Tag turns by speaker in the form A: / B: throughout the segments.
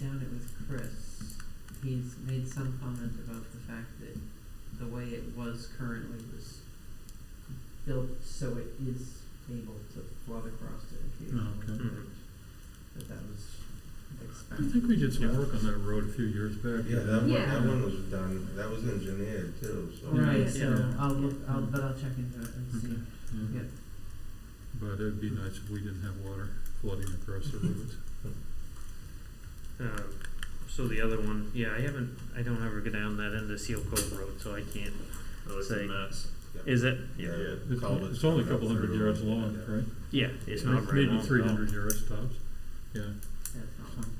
A: down it with Chris, he's made some comment about the fact that the way it was currently was built so it is able to flood across it occasionally.
B: Oh, okay.
C: Mhm.
A: That that was
B: I
A: expected.
B: think we did some
C: Yeah.
B: work on that road a few years back.
D: Yeah, that one,
A: Yeah.
D: that one was done, that was engineered too, so.
A: Right, so
B: Yeah.
A: I'll look, I'll,
B: Yeah.
A: but I'll check into it and see.
B: Okay.
A: Yeah.
B: But it'd be nice if we didn't have water flooding across the roads.
C: Um, so the other one, yeah, I haven't, I don't ever go down that end of Seal Cove Road, so I can't,
E: Oh, it's a
C: Say-
E: mess.
C: is it?
D: Yeah,
B: It's,
D: culverts
B: it's only a
D: coming up
B: couple hundred
D: through.
B: yards long, right?
C: Yeah, it's
B: Maybe-
C: not very
B: Maybe
C: long Uh-huh. at
B: three
C: all.
B: hundred yards tops, yeah.
A: That's not one.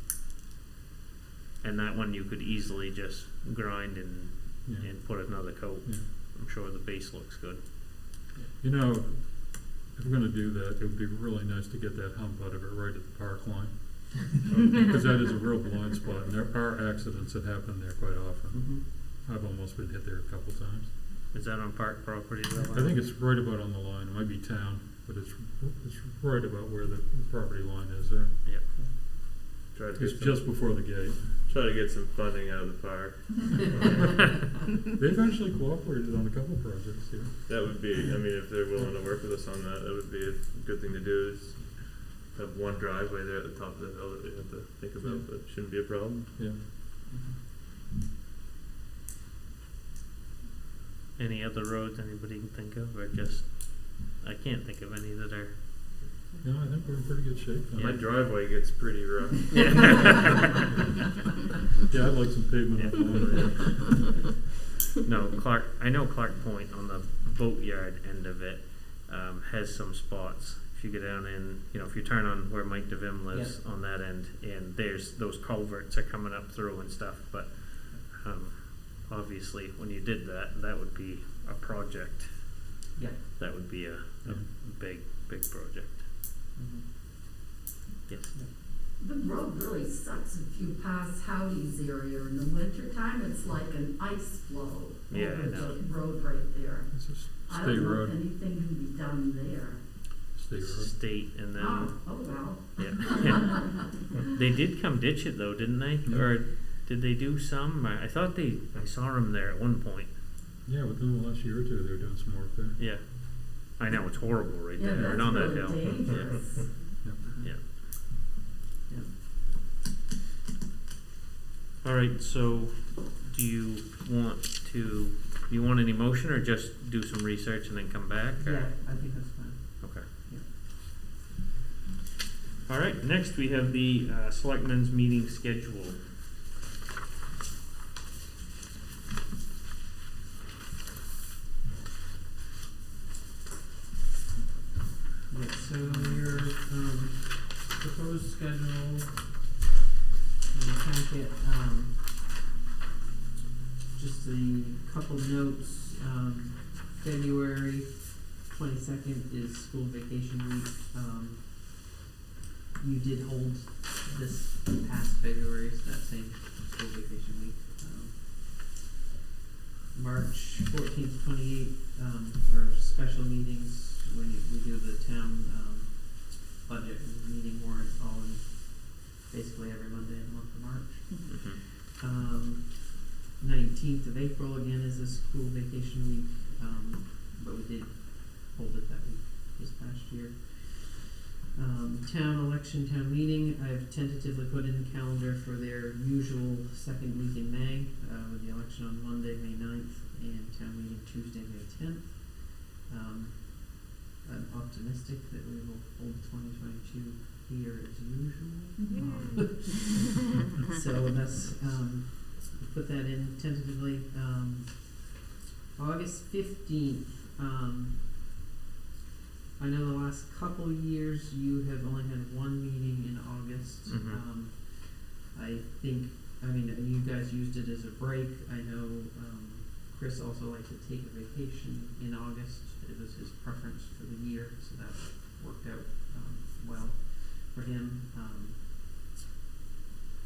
C: And that one you could easily just grind and,
B: Yeah,
C: and put another coat.
B: yeah.
C: I'm sure the base looks good.
B: You know, if we're gonna do that, it would be really nice to get that hump out of it right at the park line. Cause Oh, that is a real blind spot, and there are accidents that happen there quite often.
A: Mhm.
B: I've almost been hit there a couple times.
C: Is that on park property though?
B: I think it's right about on the line, it might be town, but it's, it's right about where the property line is there.
E: Try to
B: It's
E: get
B: just
E: some,
B: before the gate.
E: try to get some funding out of the park.
B: They've actually cooperated on a couple projects here.
E: That would be, I mean, if they're willing to work with us on that, that would be a good thing to do is have one driveway there at the top of the hill that we have to think about, but shouldn't be a problem.
B: Yeah.
A: Mm-hmm.
C: Any other roads anybody can think of, or just, I can't think of any that are.
B: No, I think we're in pretty good shape.
E: My
B: now.
E: driveway gets pretty rough.
B: Yeah, I'd like some pavement up there.
C: No, Clark, I know Clark Point on the boatyard end of it, um, has some spots. If you go down in, you know, if you turn on where Mike DeVim lives on that end, and there's, those culverts are coming up through and stuff, but, um, obviously, when you did that, that would be a project.
A: Yeah.
C: That would be a, a
B: Yeah.
C: big, big project,
A: Mhm.
C: yes.
F: The road really sucks if you pass Howdy's area in the wintertime, it's like an ice flow
C: Yeah, I
F: over
C: know.
F: the road right there.
B: It's a s-
F: I
B: state
F: don't know if
B: road,
F: anything can be done there.
B: state road.
C: State and
F: Oh,
C: then,
F: oh well.
C: yeah. They did come ditch it though, didn't they?
B: Yeah.
C: Or did they do some? I, I thought they, I saw them there at one point.
B: Yeah, within the last year or two, they're doing some work there.
C: Yeah. I know, it's horrible right
F: Yeah,
C: there,
F: that's
C: right on that hill.
F: really dangerous.
C: Alright, so do you want to, do you want any motion or just do some research and then come back? or-
A: Yeah, I think that's fine.
C: Okay.
A: Yeah.
C: All right, next we have the uh, selectmen's meeting schedule.
A: Yeah, so your, um, proposed schedule, in the packet, um, just a couple notes, um, February twenty-second is school vacation week, um, you did hold this past February, so that same school vacation week, um, March fourteenth, twenty-eighth, um, our special meetings, when you- we do the town, um, budget and meeting warrant all in basically every Monday in the month of March.
C: Mhm.
A: Um, nineteenth of April again is a school vacation week, um, but we did hold it that week this past year. Um, town election, town meeting, I've tentatively put in the calendar for their usual second week in May, uh, with the election on Monday, May 9th, and town meeting Tuesday, May tenth. Um, I'm optimistic that we will hold twenty twenty-two here as usual. Um, So that's, um, put that in tentatively, um, August fifteenth, um, I know the last couple years you have only had one meeting in August,
C: Mhm.
A: um, I think, I mean, you guys used it as a break, I know, um, Chris also liked to take a vacation in August, it was his preference for the year, so that worked out, um, well for him, um,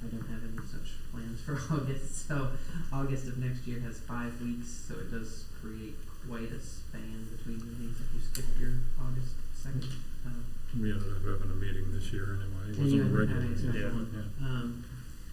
A: I don't have any such plans for August, so August of next year has five weeks, so it does create quite a span between meetings if you skip your August second. Um,
B: We ended up having a meeting this year anyway. It
A: and you
B: wasn't
A: end
B: a
A: up having
B: regular.
A: a
B: meeting.
A: special
C: yeah.
A: one. Um,